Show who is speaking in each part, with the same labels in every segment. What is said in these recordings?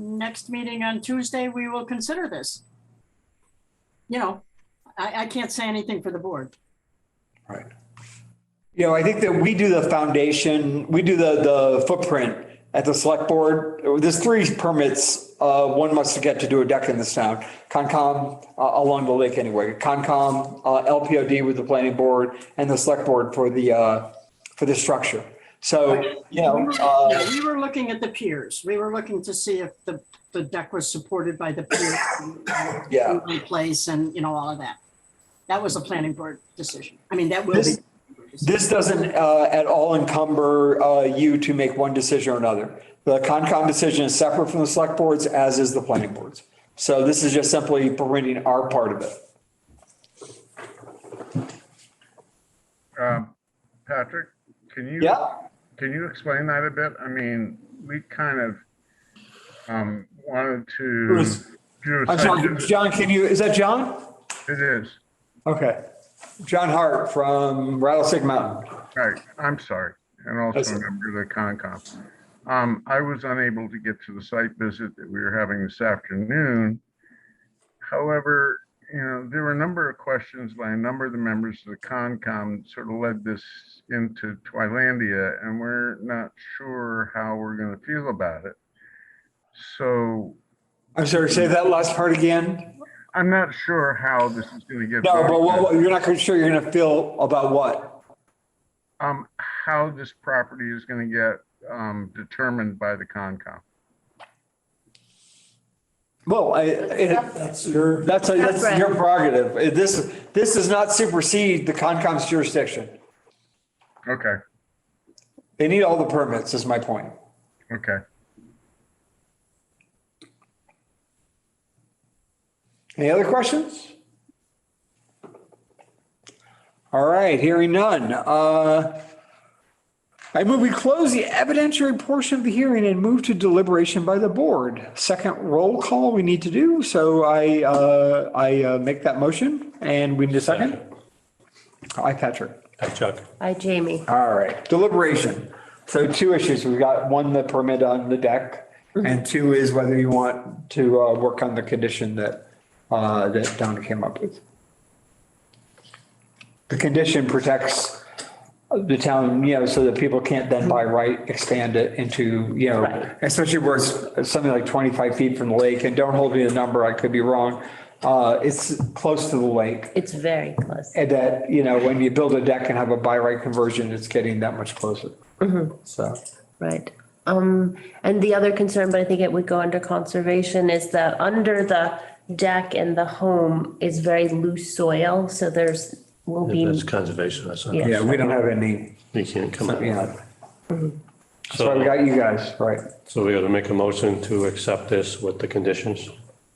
Speaker 1: next meeting on Tuesday, we will consider this. You know, I, I can't say anything for the board.
Speaker 2: Right. You know, I think that we do the foundation, we do the, the footprint at the select board. There's three permits, uh, one must get to do a deck in this town. Concom, uh, along the lake anyway, Concom, uh, LPOD with the planning board and the select board for the, uh, for the structure. So, you know, uh,
Speaker 1: Yeah, We were looking at the piers. We were looking to see if the, the deck was supported by the pier.
Speaker 2: Yeah.
Speaker 1: in Place and, you know, all of that. That was a planning board decision. I mean, that will be.
Speaker 2: This- This doesn't uh, at all encumber uh, you to make one decision or another. The Concom decision is separate from the select boards, as is the planning boards. So this is just simply permitting our part of it.
Speaker 3: Um, Patrick, can you?
Speaker 2: Yeah.
Speaker 3: Can you explain that a bit? I mean, we kind of um wanted to.
Speaker 2: Bruce.
Speaker 3: do a
Speaker 2: I'm sorry,
Speaker 3: site-
Speaker 2: John, can you, is that John?
Speaker 3: It is,
Speaker 2: Okay. John Hart from Rattlesnake Mountain.
Speaker 3: right, I'm sorry, and
Speaker 2: That's-
Speaker 3: also a member of the Concom. Um, I was unable to get to the site visit that we were having this afternoon. However, you know, there were a number of questions by a number of the members of the Concom sort of led this into Twilandia, and we're not sure how we're gonna feel about it. So
Speaker 2: I'm sorry, say that last part again?
Speaker 3: I'm not sure how this is gonna get.
Speaker 2: No, but
Speaker 3: voted.
Speaker 2: what- you're not gonna- sure you're going to feel about what?
Speaker 3: Um, how this property is gonna get, um, determined by the Concom.
Speaker 2: Well, I, it-
Speaker 4: That's your,
Speaker 2: that's, a- that's your prerogative. It- This, this does not supersede the Concom's jurisdiction.
Speaker 3: Okay,
Speaker 2: They need all the permits, is my point.
Speaker 3: okay.
Speaker 2: Any other questions? All right, hearing none. Uh, I move we close the evidentiary portion of the hearing and move to deliberation by the board. Second roll call we need to do, so I, uh, I uh, make that motion and we need a second. Aye, Patrick.
Speaker 5: Hi, Chuck.
Speaker 6: Hi, Jamie.
Speaker 2: All right, deliberation. So two issues. We've got one, the permit on the deck, and two is whether you want to uh, work on the condition that, uh, that Donna came up with. The condition protects the town, you know, so that people can't then by right expand it into, you
Speaker 6: Right.
Speaker 2: know, especially where it's something like 25 feet from the lake, and don't hold me to the number, I could be wrong. Uh, It's close to the lake.
Speaker 6: It's very close.
Speaker 2: And that, you know, when you build a deck and have a by right conversion, it's getting that much closer. So,
Speaker 6: Right. Um, and the other concern, but I think it would go under conservation, is that under the deck and the home is very loose soil, so there's will be.
Speaker 5: That's conservation, that's not,
Speaker 6: Yeah.
Speaker 2: yeah, we don't have any,
Speaker 5: you can't come
Speaker 2: you
Speaker 5: in.
Speaker 2: know, so we got you guys, right?
Speaker 5: So we got to make a motion to accept this with the conditions?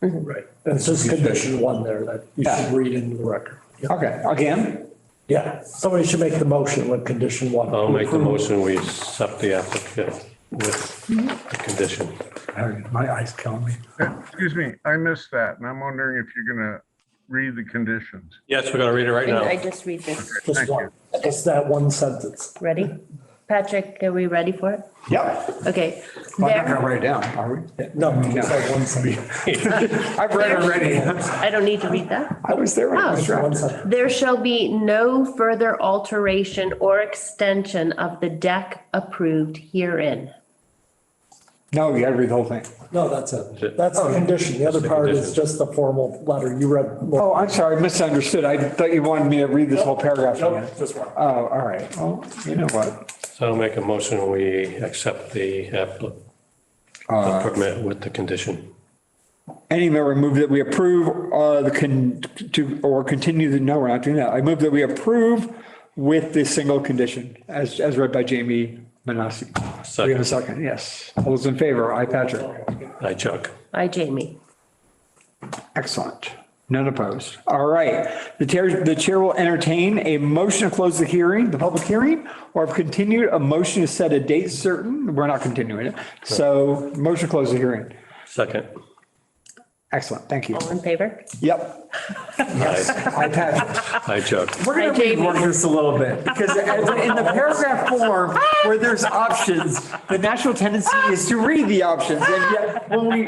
Speaker 4: right, and it says condition one there that you should read into the record. Yeah.
Speaker 2: Okay, again,
Speaker 4: Yeah, somebody should make the motion with condition one.
Speaker 5: I'll make the motion, we accept the applicant with the condition.
Speaker 2: my eyes killing me.
Speaker 3: Uh, Excuse me, I missed that, and I'm wondering if you're gonna read the conditions.
Speaker 5: Yes, we're going to read it right
Speaker 6: And I
Speaker 5: now.
Speaker 6: just read this.
Speaker 4: Just
Speaker 3: Thank
Speaker 4: one, just that one sentence.
Speaker 6: Ready? Patrick, are we ready for it?
Speaker 2: Yep,
Speaker 6: Okay.
Speaker 2: I'm not
Speaker 6: There-
Speaker 2: gonna write it down, are we?
Speaker 4: No, just that one sentence.
Speaker 2: I've read it already.
Speaker 6: I don't need to read that.
Speaker 2: I was there when I was
Speaker 4: One
Speaker 2: drafted.
Speaker 4: sentence.
Speaker 6: There shall be no further alteration or extension of the deck approved herein.
Speaker 2: No, you gotta read the whole thing.
Speaker 4: No, that's it. That's the condition. The other part is just the formal letter. You read.
Speaker 2: Oh, I'm sorry, misunderstood. I thought you wanted me to read this whole paragraph again.
Speaker 4: Nope, just one.
Speaker 2: Oh, all right. Well, you know what?
Speaker 5: So I'll make a motion, we accept the applicant permit with the condition.
Speaker 2: Any member move that we approve, uh, the con, to, or continue the, no, we're not doing that. I move that we approve with the single condition as, as read by Jamie Manassi. We have a
Speaker 5: Second,
Speaker 2: second, yes. All those in favor, aye, Patrick.
Speaker 5: hi, Chuck.
Speaker 6: Hi, Jamie.
Speaker 2: Excellent. None opposed. All right. The chair, the chair will entertain a motion to close the hearing, the public hearing, or if continued, a motion to set a date certain. We're not continuing it. So motion to close the hearing.
Speaker 5: Second,
Speaker 2: Excellent, thank you.
Speaker 6: All in favor?
Speaker 2: Yep.
Speaker 5: I
Speaker 2: I passed.
Speaker 5: I joke.
Speaker 2: We're gonna
Speaker 6: Hi, Jamie.
Speaker 2: rework this a little bit because as- in the paragraph form where there's options, the natural tendency is to read the options. And yet when we